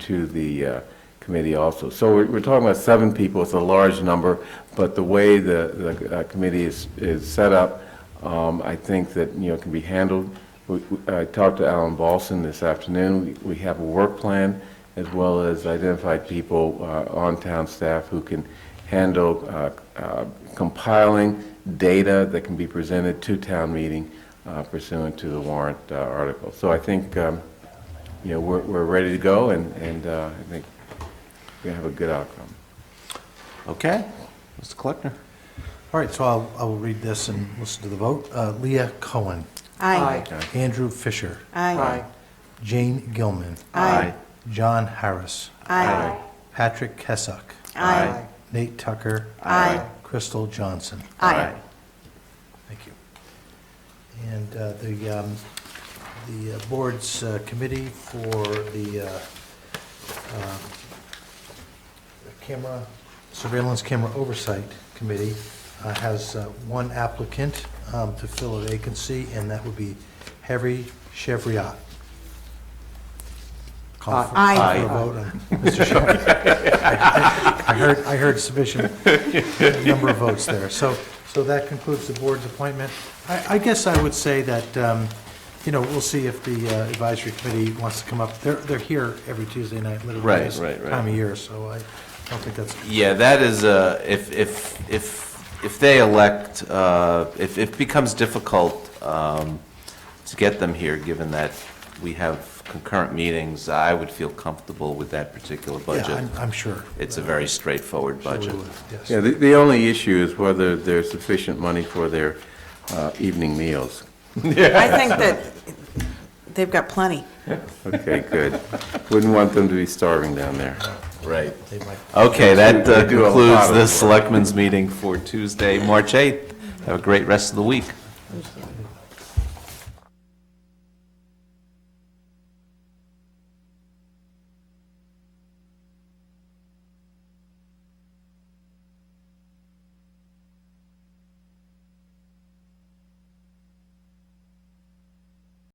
to the uh, committee also. So we're we're talking about seven people, it's a large number, but the way the the uh, committee is is set up, um, I think that, you know, it can be handled. We- we- I talked to Alan Balson this afternoon, We- we have a work plan as well as identified people uh, on town staff who can handle uh, uh, compiling data that can be presented to town meeting uh, pursuant to the warrant uh, article. So I think, um, you know, we're, we're ready to go, and, and uh, I think we're going to have a good outcome. Okay, Mr. Kleckner. All right, so I'll, I will read this and listen to the vote. Uh, Leah Cohen, Aye. Andrew Fisher, Aye. Jane Gilman, Aye. John Harris, Aye. Patrick Kesuck, Aye. Nate Tucker, Aye. Crystal Johnson. Aye. Thank you. And uh, the, um, the uh, board's uh, committee for the uh, um, camera, surveillance camera oversight committee uh, has uh, one applicant um, to fill a vacancy, and that would be Harry Chevriat. Call for- Aye. call for a vote on Mr. Chevriat. I heard, I heard sufficient number of votes there. So, so that concludes the board's appointment. I, I guess I would say that, um, you know, we'll see if the uh, advisory committee wants to come up. They're, they're here every Tuesday night, literally Right, this right, right. time of year, so I don't think that's, Yeah, that is, uh, if, if, if, if they elect, uh, if if it becomes difficult um, to get them here, given that we have concurrent meetings, I would feel comfortable with that particular yeah, budget. I'm, I'm sure. It's a very straightforward Sure we budget. would, yes. Yeah, the, the only issue is whether there's sufficient money for their uh, evening meals. I think that they've got plenty. Okay, good. Wouldn't want them to be starving down there. Right. They might- Okay, that uh, We do a lot concludes of the work. Selectmen's meeting for Tuesday, March 8th. Have a great rest of the week.